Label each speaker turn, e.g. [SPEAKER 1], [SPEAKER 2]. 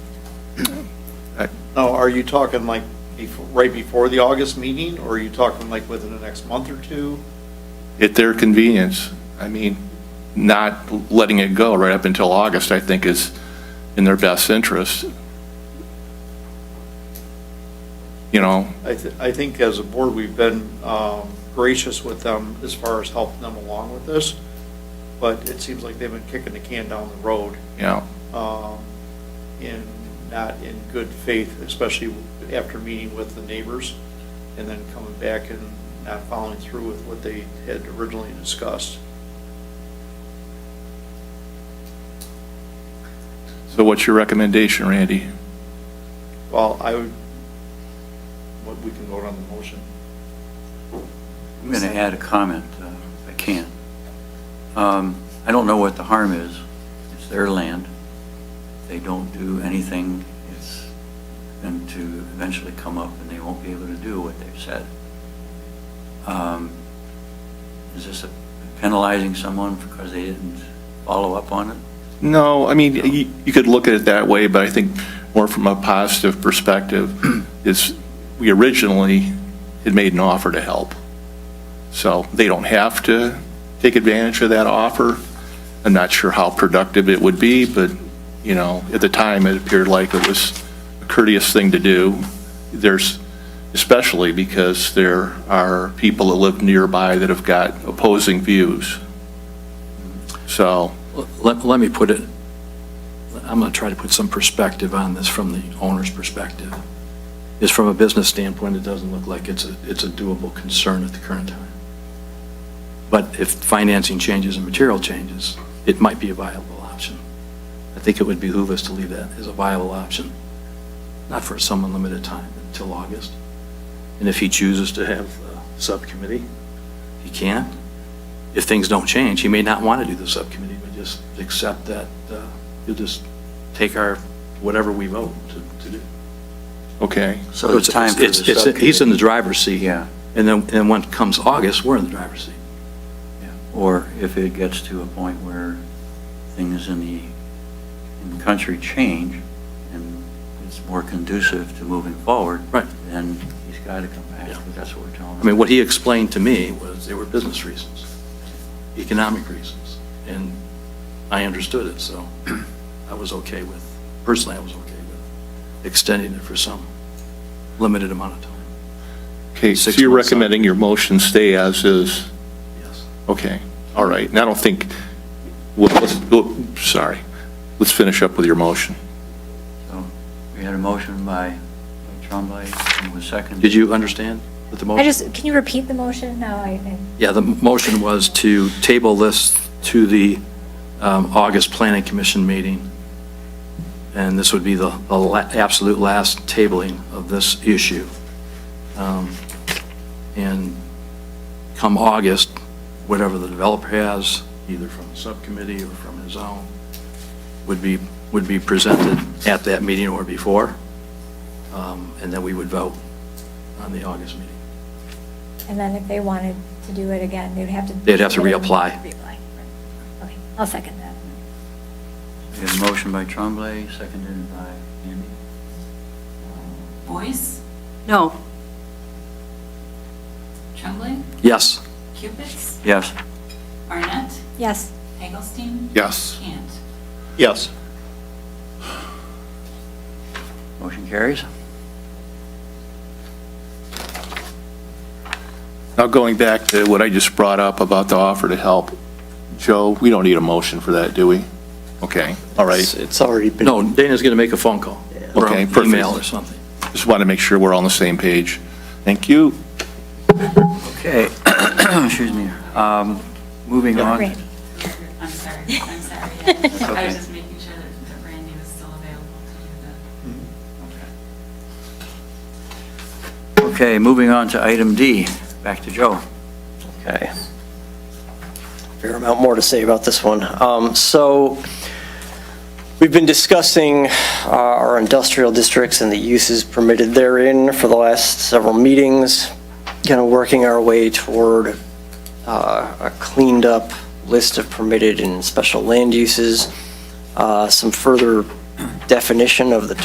[SPEAKER 1] Now, are you talking like before, right before the August meeting, or are you talking like within the next month or two?
[SPEAKER 2] at their convenience. I mean, not letting it go right up until August, I think, is in their best interest. You know,
[SPEAKER 1] I, th- I think as a board, we've been um, gracious with them as far as helping them along with this, but it seems like they've been kicking the can down the road
[SPEAKER 2] you know,
[SPEAKER 1] um, in, not in good faith, especially after meeting with the neighbors and then coming back and not following through with what they had originally discussed.
[SPEAKER 2] so what's your recommendation, Randy?
[SPEAKER 1] Well, I would, what, we can vote on the motion.
[SPEAKER 3] I'm going to add a comment, uh, if I can. Um, I don't know what the harm is. It's their land. If They don't do anything, it's going to eventually come up and they won't be able to do what they've said. Um, Is this penalizing someone because they didn't follow up on it?
[SPEAKER 2] No, I mean, you, you could look at it that way, but I think more from a positive perspective is we originally had made an offer to help. So they don't have to take advantage of that offer. I'm not sure how productive it would be, but, you know, at the time, it appeared like it was a courteous thing to do. There's, especially because there are people that live nearby that have got opposing views. So,
[SPEAKER 4] Let, let me put it, I'm going to try to put some perspective on this from the owner's perspective. Is from a business standpoint, it doesn't look like it's a, it's a doable concern at the current time. But if financing changes and material changes, it might be a viable option. I think it would behoove us to leave that as a viable option, not for some unlimited time, until August. And if he chooses to have a subcommittee, he can if things don't change, he may not want to do the subcommittee, but just accept that, uh, he'll just take our, whatever we vote to to do.
[SPEAKER 2] okay.
[SPEAKER 3] So it's time for the
[SPEAKER 4] It's- it's-
[SPEAKER 3] subcommittee.
[SPEAKER 4] He's in the driver's seat.
[SPEAKER 3] Yeah.
[SPEAKER 4] And then, and when comes August, we're in the driver's seat.
[SPEAKER 3] Or if it gets to a point where things in the, in the country change and it's more conducive to moving forward.
[SPEAKER 4] Right.
[SPEAKER 3] Then he's got to come back,
[SPEAKER 4] Yeah.
[SPEAKER 3] because that's what we're telling him.
[SPEAKER 4] I mean, what he explained to me was there were business reasons, economic reasons, and I understood it, so I was okay with, personally, I was okay with extending it for some limited amount of time,
[SPEAKER 2] Okay, so
[SPEAKER 4] Six
[SPEAKER 2] you're
[SPEAKER 4] months out.
[SPEAKER 2] recommending your motion stay as is?
[SPEAKER 4] yes.
[SPEAKER 2] Okay, all right. And I don't think, well, let's, oh, sorry, let's finish up with your motion.
[SPEAKER 3] So We had a motion by by Tremblay, and was seconded.
[SPEAKER 4] Did you understand what the motion?
[SPEAKER 5] I just, can you repeat the motion? No, I, I-
[SPEAKER 4] Yeah, the motion was to table this to the um, August Planning Commission meeting, and this would be the the la- absolute last tabling of this issue. Um, And come August, whatever the developer has, either from the subcommittee or from his own, would be, would be presented at that meeting or before, Um, and then we would vote on the August meeting.
[SPEAKER 5] and then if they wanted to do it again, they'd have to.
[SPEAKER 4] They'd have to reapply.
[SPEAKER 5] Reapply. Okay, I'll second that.
[SPEAKER 3] We had a motion by Tremblay, seconded by Andy.
[SPEAKER 6] Boyce,
[SPEAKER 7] No.
[SPEAKER 6] Tremblay,
[SPEAKER 4] Yes?
[SPEAKER 6] Cupids,
[SPEAKER 3] Yes.
[SPEAKER 6] Barnett,
[SPEAKER 5] Yes,
[SPEAKER 6] Hagelstein,
[SPEAKER 2] Yes.
[SPEAKER 6] Can't.
[SPEAKER 1] Yes.
[SPEAKER 3] Motion carries.
[SPEAKER 2] Now, going back to what I just brought up about the offer to help, Joe, we don't need a motion for that, do we? Okay, all right.
[SPEAKER 8] It's- It's already been.
[SPEAKER 4] No, Dana's going to make a phone call. or
[SPEAKER 2] Okay,
[SPEAKER 4] an
[SPEAKER 2] perfect.
[SPEAKER 4] Email or something.
[SPEAKER 2] Just want to make sure we're all on the same page. Thank you.
[SPEAKER 3] Okay, excuse me. Um, Moving on.
[SPEAKER 5] Randy.
[SPEAKER 6] I'm sorry, I'm sorry. yeah. I
[SPEAKER 3] okay.
[SPEAKER 6] was just making sure that that Randy was still available to do that.
[SPEAKER 3] Okay, moving on to item D. Back to Joe.
[SPEAKER 8] Okay. Fair amount more to say about this one. Um, So we've been discussing uh, our industrial districts and the uses permitted therein for the last several meetings, kind of working our way toward uh, a cleaned-up list of permitted and special land uses, uh, some further definition of the